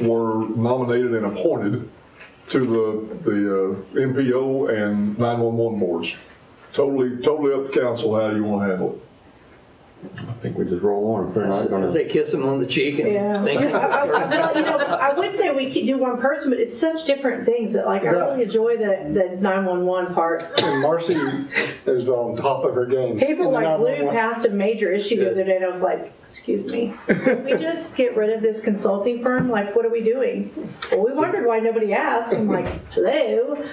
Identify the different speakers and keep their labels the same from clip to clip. Speaker 1: were nominated and appointed to the, the uh, MPO and 911 boards. Totally, totally up to council how you want to handle it.
Speaker 2: I think we just roll on. If they're not
Speaker 3: I
Speaker 2: gonna,
Speaker 3: say kiss him on the cheek
Speaker 4: Yeah.
Speaker 3: and thank
Speaker 4: I-
Speaker 3: you.
Speaker 4: I- well, you know, I would say we could do one person, but it's such different things that like, I really enjoy the, the 911 part.
Speaker 5: And Marcy is on top of her game.
Speaker 4: People
Speaker 5: And
Speaker 4: like Lou
Speaker 5: 911
Speaker 4: passed a major issue the other day and I was like, excuse me, can we just get rid of this consulting firm? Like, what are we doing? Well, we wondered why nobody asked. I'm like, hello?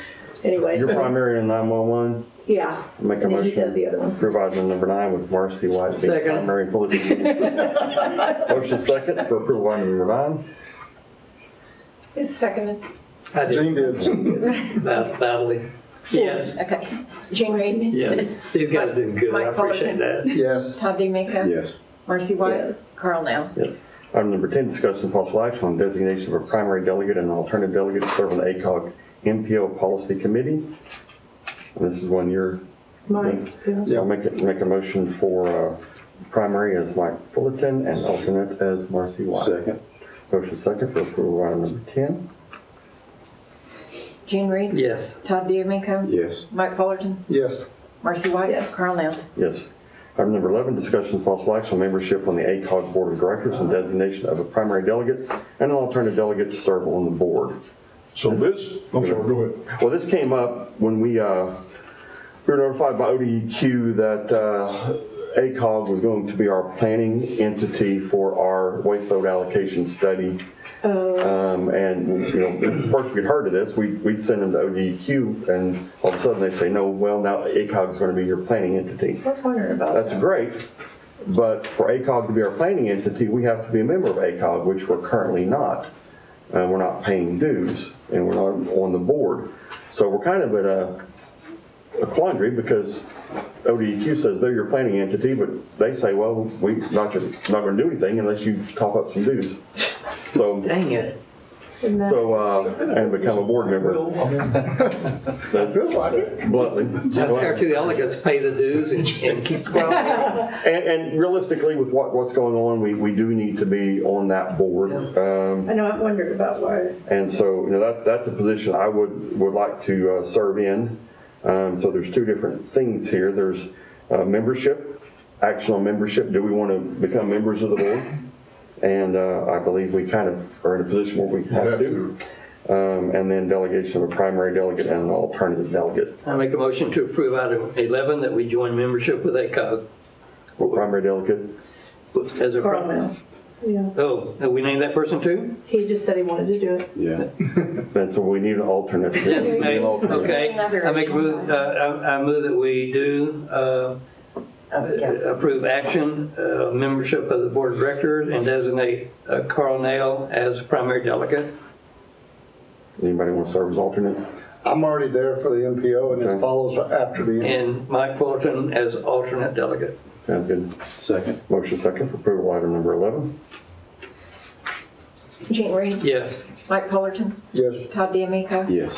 Speaker 4: Anyway,
Speaker 2: your
Speaker 4: so,
Speaker 2: primary in 911,
Speaker 4: yeah.
Speaker 2: make a
Speaker 4: And then he does the
Speaker 2: motion.
Speaker 4: other one.
Speaker 2: Revising number nine with Marcy White being
Speaker 3: Second.
Speaker 2: primary and Philip being- Motion second for approval of item number nine.
Speaker 6: It's seconded.
Speaker 3: I did
Speaker 5: Jane did.
Speaker 3: bat- badly. Yes,
Speaker 6: Okay. Jane Reed?
Speaker 3: yes. These guys did good. I
Speaker 6: Mike Fullerton.
Speaker 3: appreciate that.
Speaker 5: Yes.
Speaker 6: Todd DeMeco?
Speaker 2: Yes.
Speaker 6: Marcy White?
Speaker 4: Yes.
Speaker 6: Carl Nell?
Speaker 2: Yes. Item number 10, discussion of possible action on designation of a primary delegate and an alternative delegate to serve on the ACOG MPO Policy Committee. And This is one year.
Speaker 4: Mike, yeah.
Speaker 2: So I'll make, it- make a motion for uh, primary as Mike Fullerton and alternate as Marcy White. Second. Motion second for approval of item number 10.
Speaker 6: Jane Reed?
Speaker 3: Yes.
Speaker 6: Todd DeMeco?
Speaker 2: Yes.
Speaker 6: Mike Fullerton?
Speaker 5: Yes.
Speaker 6: Marcy White?
Speaker 4: Yes.
Speaker 6: Carl Nell?
Speaker 2: Yes. Item number 11, discussion of possible action on membership on the ACOG Board of Directors and designation of a primary delegate and an alternate delegate to serve on the board.
Speaker 1: So this, I'm sorry, go ahead.
Speaker 2: Well, this came up when we, uh, we were notified by ODEQ that uh, ACOG was going to be our planning entity for our waste load allocation study. Um, And, you know, this is the first we'd heard of this, we- we'd send them to ODEQ, and all of a sudden they say, no, well, now ACOG is going to be your planning entity.
Speaker 4: I was wondering about that.
Speaker 2: That's great, but for ACOG to be our planning entity, we have to be a member of ACOG, which we're currently not. Uh, We're not paying dues, and we're not on the board. So we're kind of at a a quandary because ODEQ says they're your planning entity, but they say, well, we're not your- not going to do anything unless you top up some dues. So,
Speaker 3: Dang it.
Speaker 4: Isn't that-
Speaker 2: so, uh, and become a board member. That's
Speaker 5: Feels like it.
Speaker 2: bluntly.
Speaker 3: Just our two delegates pay the dues and, and keep.
Speaker 2: And, and realistically, with what, what's going on, we, we do need to be on that board. Um,
Speaker 4: I know, I've wondered about why.
Speaker 2: and so, you know, that's, that's a position I would, would like to, uh, serve in. Um, so there's two different things here. There's, uh, membership, action on membership. Do we want to become members of the board? And, uh, I believe we kind of are in a position where we have to. Um, and then delegation of a primary delegate and an alternative delegate.
Speaker 3: I make a motion to approve item 11 that we join membership with ACOG
Speaker 2: Well, Primary delegate,
Speaker 3: as a.
Speaker 4: Carl Mel. Yeah,
Speaker 3: Oh, and we name that person too?
Speaker 4: he just said he wanted to do it.
Speaker 2: and so we need an alternate.
Speaker 3: Yes,
Speaker 2: We need an
Speaker 3: ma'am.
Speaker 2: alternate.
Speaker 3: okay. I make a move, uh, I I move that we do uh,
Speaker 6: Oh, yeah.
Speaker 3: approve action, uh, membership of the board of directors, and designate uh, Carl Nail as primary delegate.
Speaker 2: Anybody want to serve as alternate?
Speaker 5: I'm already there for the MPO and
Speaker 2: Okay.
Speaker 5: it follows after the,
Speaker 3: and Mike Fullerton as alternate delegate.
Speaker 2: Sounds good.
Speaker 7: Second.
Speaker 2: Motion second for approval item number 11.
Speaker 6: Jane Reed?
Speaker 3: Yes.
Speaker 6: Mike Fullerton?
Speaker 5: yes.
Speaker 6: Todd DeMeco?
Speaker 7: Yes.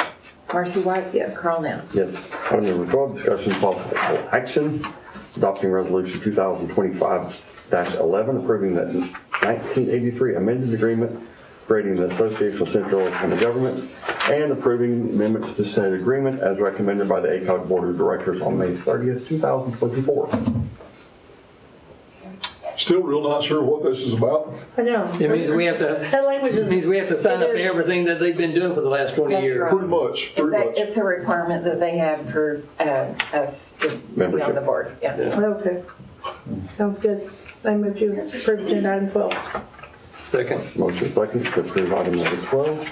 Speaker 6: Marcy White?
Speaker 4: Yes.
Speaker 6: Carl Nell?
Speaker 2: Yes. Item number 12, discussion of possible action, adopting resolution 2025-11, approving the 1983 amended agreement creating the Association of Central Oklahoma Governments and approving amendments to said agreement as recommended by the ACOG Board of Directors on May 30th, 2024.
Speaker 1: Still real not sure what this is about.
Speaker 4: I know.
Speaker 3: It means we have to,
Speaker 4: That language
Speaker 3: it
Speaker 4: is.
Speaker 3: means we have to sign up
Speaker 6: It
Speaker 3: to
Speaker 6: is.
Speaker 3: everything that they've been doing for the last 20
Speaker 6: That's
Speaker 3: years.
Speaker 6: right.
Speaker 1: Pretty much, pretty
Speaker 6: That-
Speaker 1: much.
Speaker 6: It's a requirement that they have for uh, us to be on
Speaker 2: Membership.
Speaker 6: the board. Yeah.
Speaker 4: Okay. Sounds good. I move to approve agenda item 12.
Speaker 3: Second.
Speaker 2: Motion second to approve item number 12.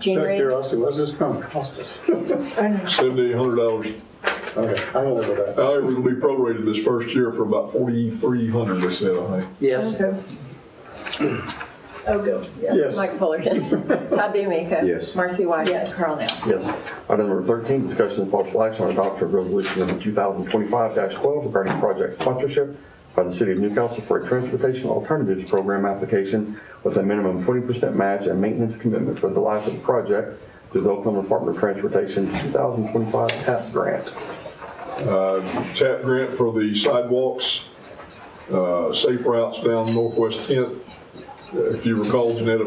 Speaker 6: Jane
Speaker 5: Check
Speaker 6: Reed?
Speaker 5: curiosity, what's this gonna cost us?
Speaker 4: I know.
Speaker 1: Seventy, hundred dollars.
Speaker 5: Okay, I don't live with that.
Speaker 1: However, it'll be prorated this first year for about forty-three hundred, they said, I think.
Speaker 3: Yes.
Speaker 4: Okay. Oh, go. Yeah.
Speaker 5: Yes.
Speaker 6: Mike Fullerton? Todd DeMeco?
Speaker 7: Yes.
Speaker 6: Marcy White?
Speaker 4: Yes.
Speaker 6: Carl Nell?
Speaker 2: Yes. Item number 13, discussion of possible action on adoption of resolution number 2025-12 regarding project sponsorship by the City of Newcastle for a transportation alternatives program application with a minimum 20% match and maintenance commitment for the life of the project through the Oklahoma Department of Transportation 2025 TAP grant.
Speaker 1: Uh, Tap grant for the sidewalks, uh, safe routes down Northwest 10th. Uh, If you recall, Janetta